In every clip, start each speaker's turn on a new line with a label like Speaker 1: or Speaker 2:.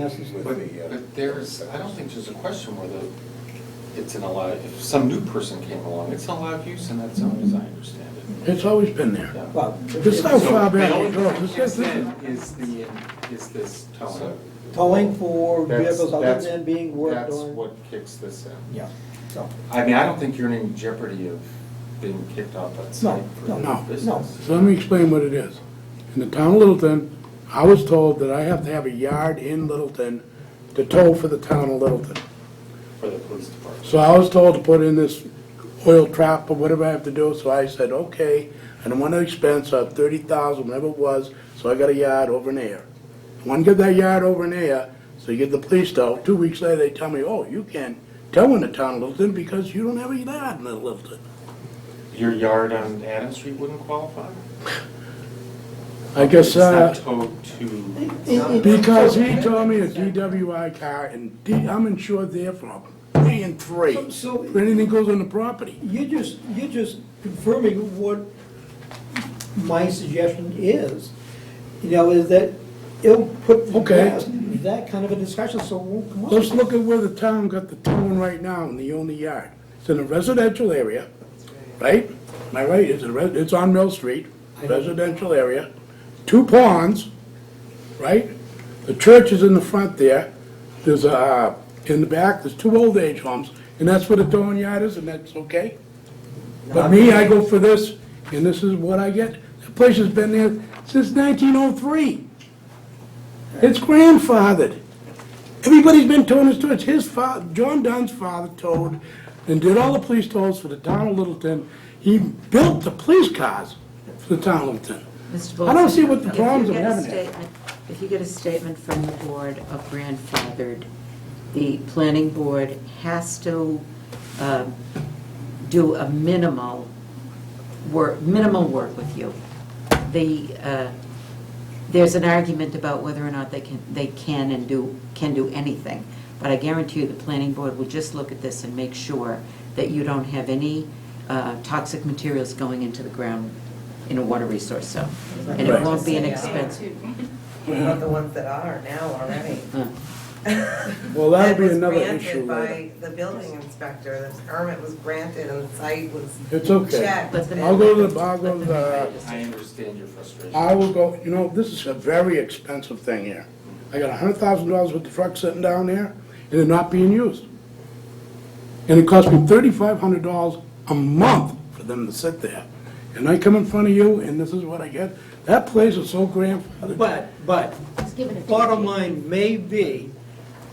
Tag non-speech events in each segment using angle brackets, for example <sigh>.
Speaker 1: Dances with
Speaker 2: But
Speaker 1: the, uh,
Speaker 2: but there's, I don't think there's a question whether it's an allowed, if some new person came along, it's an allowed use in that zone, as I understand it.
Speaker 3: It's always been there.
Speaker 2: Yeah.
Speaker 1: Well,
Speaker 3: This is how
Speaker 2: So
Speaker 3: far back
Speaker 2: the only
Speaker 3: it goes.
Speaker 2: thing
Speaker 3: This is- this is-
Speaker 2: then Is the, is this towing.
Speaker 1: towing for
Speaker 2: That's-
Speaker 1: vehicles other
Speaker 2: that's-
Speaker 1: than being worked
Speaker 2: That's
Speaker 1: on.
Speaker 2: what kicks this in.
Speaker 1: Yeah, so,
Speaker 2: I mean, I don't think you're in any jeopardy of being kicked off that site for
Speaker 1: no,
Speaker 3: no,
Speaker 2: the business.
Speaker 3: So let me explain what it is. In the town of Littleton, I was told that I have to have a yard in Littleton to tow for the town of Littleton.
Speaker 2: For the police department.
Speaker 3: So I was told to put in this oil trap or whatever I have to do, so I said, okay, I don't want to expense of thirty thousand, whatever it was, so I got a yard over in there. One get that yard over in there, so you get the police tow, two weeks later, they tell me, oh, you can't tow in the town of Littleton because you don't have a yard in Littleton.
Speaker 2: Your yard on Adams Street wouldn't qualify?
Speaker 3: I guess,
Speaker 2: It's not
Speaker 3: uh,
Speaker 2: towed to.
Speaker 3: because he told me a DWI car, and D, I'm insured there from three and three,
Speaker 1: So- so-
Speaker 3: for anything goes on the property.
Speaker 1: you're just, you're just confirming what my suggestion is. You know, is that it'll put the
Speaker 3: Okay.
Speaker 1: past that kind of a discussion, so it won't come up.
Speaker 3: Let's look at where the town got the towing right now in the only yard. It's in a residential area, right? Am I right? It's, a res- it's on Mill Street, residential area. Two ponds, right? The church is in the front there. There's a, in the back, there's two old age homes, and that's where the towing yard is, and that's okay? But me, I go for this, and this is what I get. The place has been there since 1903. It's grandfathered. Everybody's been towing his toys. His father, John Dunn's father towed and did all the police tolls for the town of Littleton. He built the police cars for the town of Littleton.
Speaker 4: Mr.
Speaker 3: I don't
Speaker 4: Bolton,
Speaker 3: see what the
Speaker 4: if
Speaker 3: problems
Speaker 4: you
Speaker 3: of
Speaker 4: get a
Speaker 3: having it.
Speaker 4: statement- If you get a statement from the board of grandfathered, the planning board has to um, do a minimal work, minimal work with you. The, uh, there's an argument about whether or not they can, they can and do, can do anything. But I guarantee you, the planning board will just look at this and make sure that you don't have any uh, toxic materials going into the ground in a water resource zone. And it
Speaker 3: Right.
Speaker 4: won't be an expense.
Speaker 5: Not the ones that are now already.
Speaker 4: Uh,
Speaker 3: <laughs> Well, that'll be
Speaker 5: was
Speaker 3: another
Speaker 5: granted
Speaker 3: issue later.
Speaker 5: By the building inspector, the permit was granted and the site was
Speaker 3: It's okay.
Speaker 5: checked.
Speaker 4: Let them-
Speaker 3: I'll go to the, I'll go to the,
Speaker 2: I understand your frustration.
Speaker 3: I will go, you know, this is a very expensive thing here. I got a hundred thousand dollars worth of truck sitting down there, and it not being used. And it cost me thirty-five hundred dollars a month for them to sit there. And I come in front of you, and this is what I get. That place is so grandfathered.
Speaker 1: But, but, bottom line may be,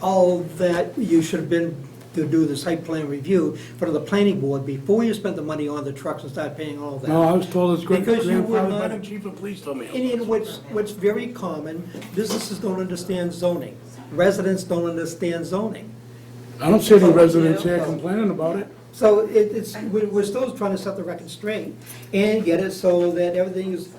Speaker 1: all that you should have been to do the site plan review for the planning board before you spent the money on the trucks and start paying all that.
Speaker 3: No, I was told it's gra-
Speaker 1: Because you were
Speaker 3: grandfathered by
Speaker 1: not-
Speaker 3: the chief of police told me.
Speaker 1: And in which, what's very common, businesses don't understand zoning. Residents don't understand zoning.
Speaker 3: I don't see
Speaker 1: Oh,
Speaker 3: any residents here complaining about it.
Speaker 1: So it, it's, we're, we're still trying to set the record straight and get it so that everything is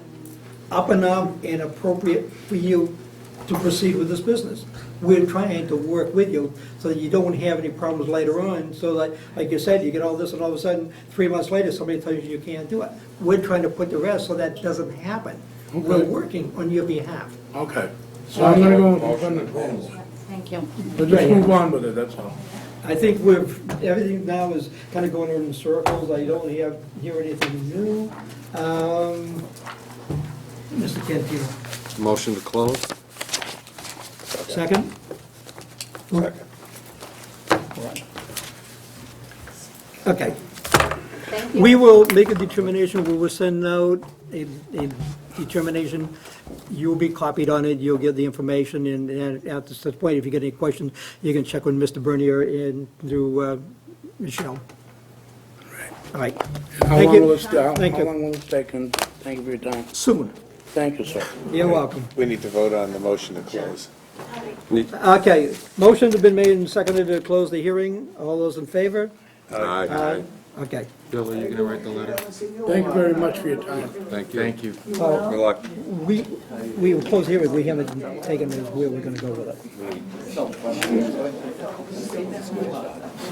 Speaker 1: up and up and appropriate for you to proceed with this business. We're trying to work with you so that you don't have any problems later on, so that, like you said, you get all this and all of a sudden, three months later, somebody tells you you can't do it. We're trying to put the rest so that doesn't happen. We're
Speaker 3: Okay.
Speaker 1: working on your behalf.
Speaker 3: Okay, so I'm gonna go in front of the planning board.
Speaker 4: Thank you.
Speaker 3: But just move on with it, that's all.
Speaker 1: I think we're, everything now is kind of going in circles, I don't hear, hear anything new. Um, Mr. Cantino,
Speaker 6: Motion to close?
Speaker 1: second? Second. Okay,
Speaker 4: Thank
Speaker 1: we will make a determination, we will send out a, a determination. You'll be copied on it, you'll get the information, and, and at this point, if you get any questions, you can check with Mr. Bernier and through, uh, Michelle. All right,
Speaker 3: How
Speaker 1: Thank
Speaker 3: long
Speaker 1: you.
Speaker 3: will this, how
Speaker 1: Thank you.
Speaker 3: long will this take, and thank you for your time.
Speaker 1: soon,
Speaker 3: Thank you, sir.
Speaker 1: you're welcome.
Speaker 6: We need to vote on the motion to close.
Speaker 1: Okay, motions have been made and seconded to close the hearing. All those in favor?
Speaker 6: Aye.
Speaker 1: Okay.
Speaker 2: Bill, are you gonna write the letter?
Speaker 3: Thank you very much for your time.
Speaker 6: Thank you.
Speaker 2: Thank you.
Speaker 6: Good luck.
Speaker 1: We, we will close here, we haven't taken where we're gonna go with it.
Speaker 6: So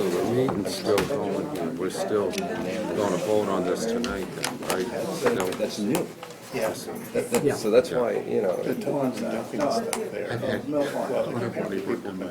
Speaker 6: the meeting's still going, and we're still gonna vote on this tonight, then, right? That's new.
Speaker 7: Yeah.
Speaker 6: That-
Speaker 8: Yeah.
Speaker 6: that- So that's why, you know.
Speaker 7: The ponds and dumping stuff there. Mill pond.